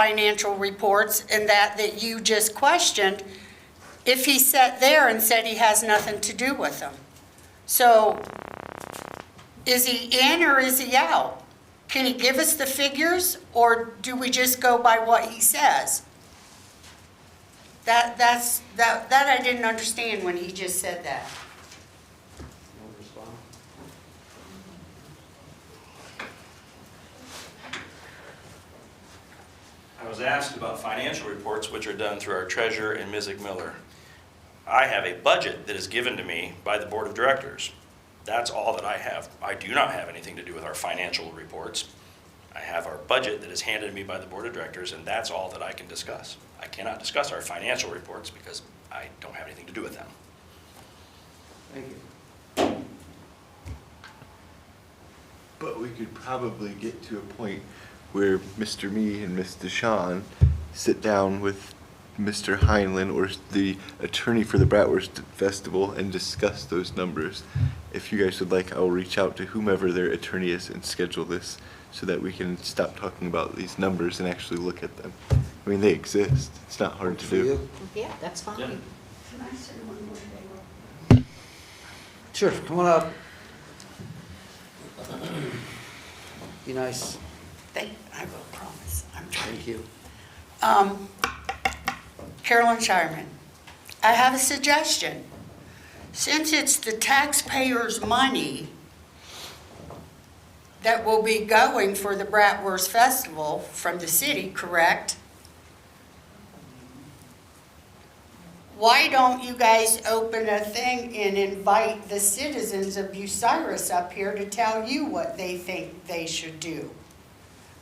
financial reports and that that you just questioned if he sat there and said he has nothing to do with them. So is he in or is he out? Can he give us the figures or do we just go by what he says? That, that's, that, that I didn't understand when he just said that. I was asked about financial reports, which are done through our treasurer and Ms. Miller. I have a budget that is given to me by the board of directors. That's all that I have. I do not have anything to do with our financial reports. I have our budget that is handed to me by the board of directors, and that's all that I can discuss. I cannot discuss our financial reports because I don't have anything to do with them. Thank you. But we could probably get to a point where Mr. Me and Mr. Sean sit down with Mr. Heinlein or the attorney for the Bratwurst Festival and discuss those numbers. If you guys would like, I'll reach out to whomever their attorney is and schedule this so that we can stop talking about these numbers and actually look at them. I mean, they exist. It's not hard to For do. you? Yeah, that's fine. Sure, come on up. Be nice. Thank, I will promise, I'm trying. Thank you. Um, Carolyn Shireman, I have a suggestion. Since it's the taxpayers' money that will be going for the Bratwurst Festival from the city, correct? Why don't you guys open a thing and invite the citizens of Bucyrus up here to tell you what they think they should do?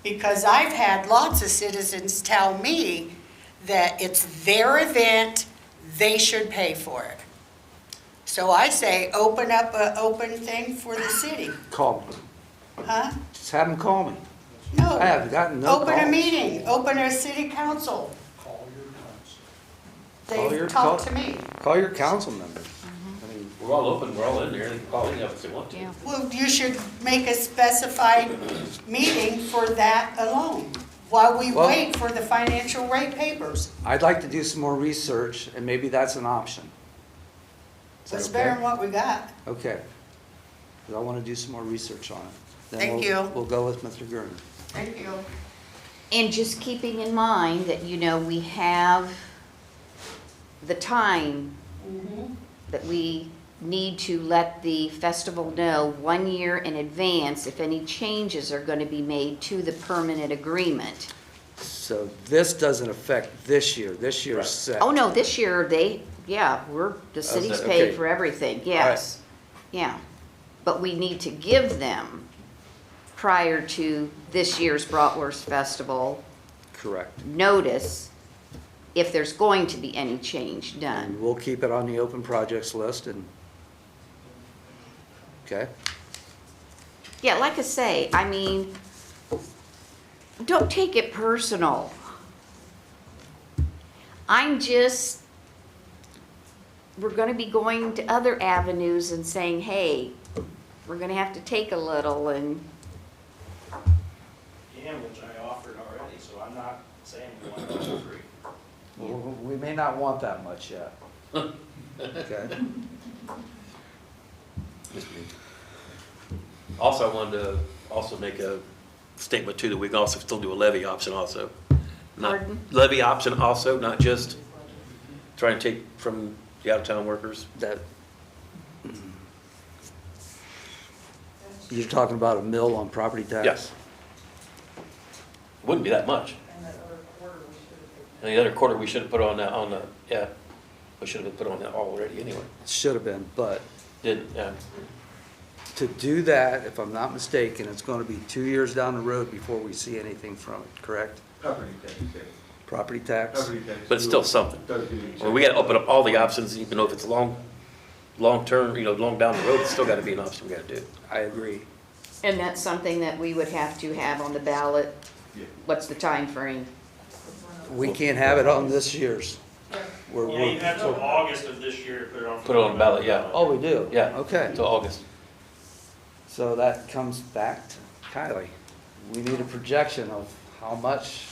because I've had lots of citizens tell me that it's their event, they should pay for it. So I say, open up a open thing for the city, Call me. huh? Just have them call me. No. I have gotten no Open a calls. meeting, open a city council. Call your They've talked cou- to me. Call your council members. I mean, We're all open, we're all in there, they can call in if they want to. Yeah. Well, you should make a specified meeting for that alone, while we Well- wait for the financial rate papers. I'd like to do some more research, and maybe that's an option. Is that Let's okay? bear in what we got. Okay. 'Cause I want to do some more research on it. Then Thank we'll- you. We'll go with Mr. Gurman. Thank you. And just keeping in mind that, you know, we have the time that we need to let the festival know one year in advance if any changes are going to be made to the permanent agreement. So this doesn't affect this year. This year's set. Oh, no, this year, they, yeah, we're, the That's city's it, paid okay. for everything, yes. Yeah, but we need to give them prior to this year's Bratwurst Festival Correct. notice if there's going to be any change And done. we'll keep it on the open projects list and, okay? Yeah, like I say, I mean, don't take it personal. I'm just, we're gonna be going to other avenues and saying, hey, we're gonna have to take a little and, And which I offered already, so I'm not saying we want it for free. We we may not want that much yet. Okay? Just me. Also, I wanted to also make a statement too, that we can also still do a levy option also. Not- Pardon? Levy option also, not just trying to take from the out-of-town workers, that, You're talking about a mill on property tax? yes. Wouldn't be that much. And the other quarter, we should have put on that, on the, yeah, we should have put on that already anyway. Should have been, but Didn't, yeah. to do that, if I'm not mistaken, it's gonna be two years down the road before we see anything from it, correct? Property tax, yes. Property tax? Property tax. But it's still something. Does give you a Well, we gotta open up all the options, even though if it's long, long-term, you know, long down the road, it's still gotta be an option we gotta do. I agree. and that's something that we would have to have on the ballot. Yeah. What's the time frame? We can't have it on this year's. We're, Yeah, you we're, have till August of this year to put it on. for Put it on the ballot, yeah. oh, we do? Yeah. Okay, Until August. so that comes back to Kylie. We need a projection of how much